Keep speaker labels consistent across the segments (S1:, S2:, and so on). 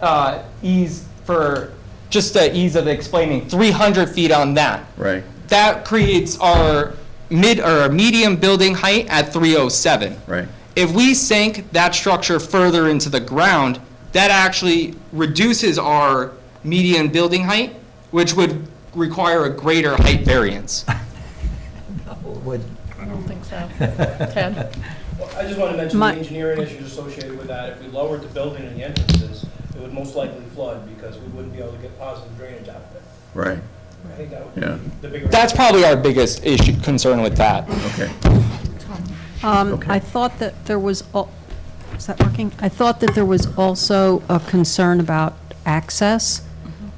S1: uh, ease for, just the ease of explaining, 300 feet on that.
S2: Right.
S1: That creates our mid, or medium building height at 307.
S2: Right.
S1: If we sink that structure further into the ground, that actually reduces our median building height, which would require a greater height variance.
S3: Would,
S4: I don't think so. Ted?
S5: Well, I just want to mention the
S4: My-
S5: engineering issues associated with that. If we lowered the building and the entrances, it would most likely flood because we wouldn't be able to get positive drainage out of it.
S2: Right,
S5: I think that would
S2: Yeah.
S5: be the bigger.
S1: That's probably our biggest issue, concern with that.
S2: okay.
S4: Um,
S2: Okay.
S4: I thought that there was, al- is that working? I thought that there was also a concern about access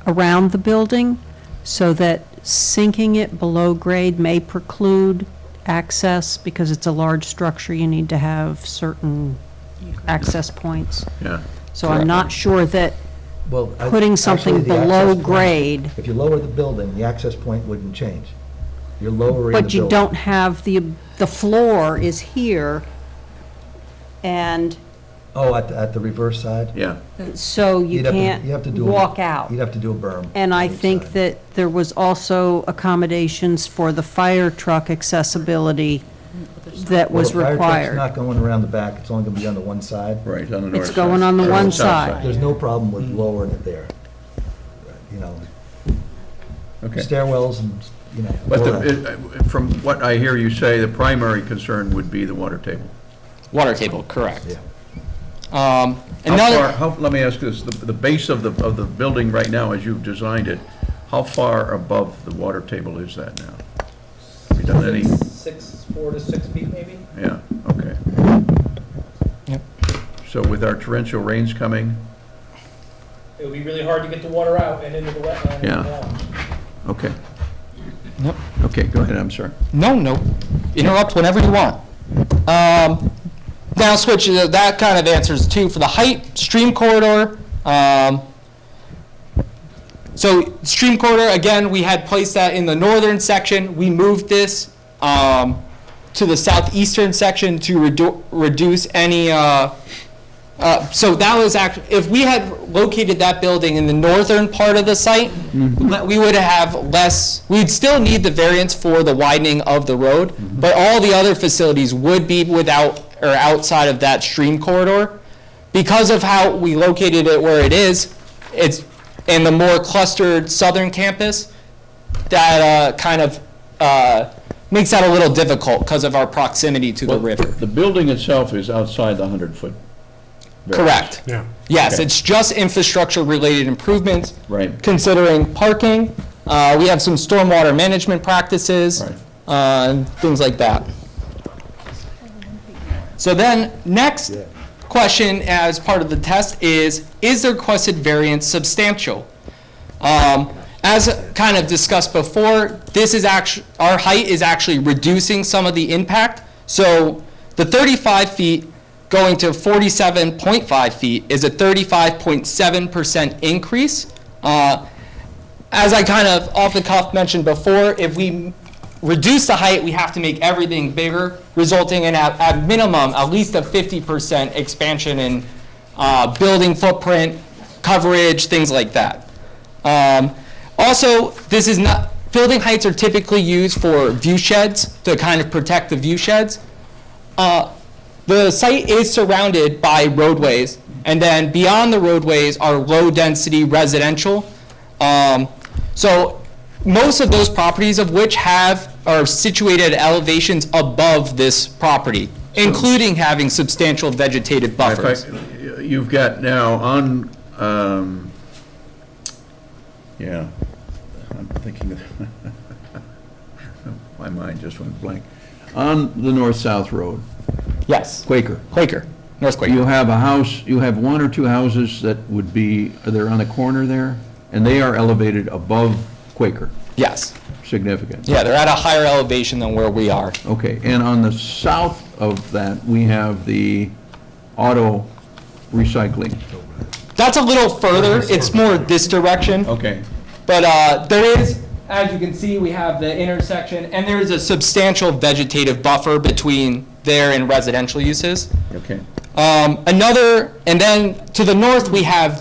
S4: around the building, so that sinking it below grade may preclude access, because it's a large structure, you need to have certain access points.
S2: Yeah,
S4: So I'm not sure that
S3: well. I-
S4: putting something
S3: actually, the
S4: below
S3: access point-
S4: grade-
S3: If you lower the building, the access point wouldn't change. You're lowering the
S4: But you
S3: building.
S4: don't have, the, the floor is here, and
S3: Oh, at, the- at the reverse side?
S2: yeah,
S4: so you
S3: You'd have to-
S4: can't
S3: you'd have to do a-
S4: walk out.
S3: You'd have to do a berm.
S4: And I
S3: on each
S4: think
S3: side.
S4: that there was also accommodations for the fire truck accessibility that was
S3: Well, the Fire truck's
S4: required.
S3: not going around the back, it's only going to be on the one side.
S2: right, on the north side.
S4: It's going on the
S2: or
S4: one
S2: south
S4: side.
S3: There's no problem with
S2: Mm.
S3: lowering it there. You know,
S2: Okay.
S3: stairwells and, you know.
S2: But
S3: all
S2: the,
S3: that.
S2: it- uh, from what I hear you say, the primary concern would be the water table.
S1: Water table, correct.
S3: Yeah.
S1: Um,
S2: How far,
S1: Another,
S2: how, let me ask this, the, the base of the, of the building right now, as you've designed it, how far above the water table is that now? Have you done any,
S5: Six, four to six feet maybe?
S2: yeah, okay.
S1: Yep.
S2: So with our torrential rains coming,
S5: It would be really hard to get the water out and into the wetland. Um, and
S2: Yeah.
S5: along.
S2: okay.
S1: Yep.
S2: Okay, go ahead, I'm sorry.
S1: no, no, interrupt whenever you want. Um, Now switch, uh, that kind of answers too, for the height, stream corridor. um, So stream corridor, again, we had placed that in the northern section. We moved this um, to the southeastern section to redu- reduce any, uh, uh, so that was act, if we had located that building in the northern part of the site, le- we would have less, we'd still need the variance for the widening of the road, but all the other facilities would be without, or outside of that stream corridor. Because of how we located it where it is, it's in the more clustered southern campus, that uh, kind of uh, makes that a little difficult because of our proximity to the
S2: Well,
S1: river.
S2: The building itself is outside the 100-foot.
S1: Correct.
S6: Yeah.
S1: Yes,
S2: Okay.
S1: it's just infrastructure-related improvements.
S2: Right.
S1: Considering parking, uh, we have some stormwater management practices,
S2: Right.
S1: uh, and things like that. So then, next question as part of the test is, is the requested variance substantial? Um, As kind of discussed before, this is actually, our height is actually reducing some of the impact. So the 35 feet going to 47.5 feet is a 35.7% increase. Uh, As I kind of off the cuff mentioned before, if we reduce the height, we have to make everything bigger, resulting in at, at minimum, at least a 50% expansion in uh, building footprint, coverage, things like that. Um, Also, this is not, building heights are typically used for view sheds, to kind of protect the view sheds. Uh, The site is surrounded by roadways, and then beyond the roadways are low-density residential. Um, So most of those properties of which have, are situated at elevations above this property, including having substantial vegetative
S2: In
S1: buffers.
S2: fact, you've got now on, um, yeah, I'm thinking, of- my mind just went blank. On the north-south road,
S1: Yes,
S2: Quaker,
S1: Quaker, North Quaker.
S2: you have a house, you have one or two houses that would be, they're on the corner there, and they are elevated above Quaker,
S1: Yes.
S2: significant.
S1: Yeah, they're at a higher elevation than where we are.
S2: Okay, and on the south of that, we have the auto recycling.
S1: That's a little further, it's more this direction.
S2: Okay,
S1: But uh, there is, as you can see, we have the intersection, and there is a substantial vegetative buffer between there and residential uses.
S2: okay.
S1: Um, Another, and then to the north, we have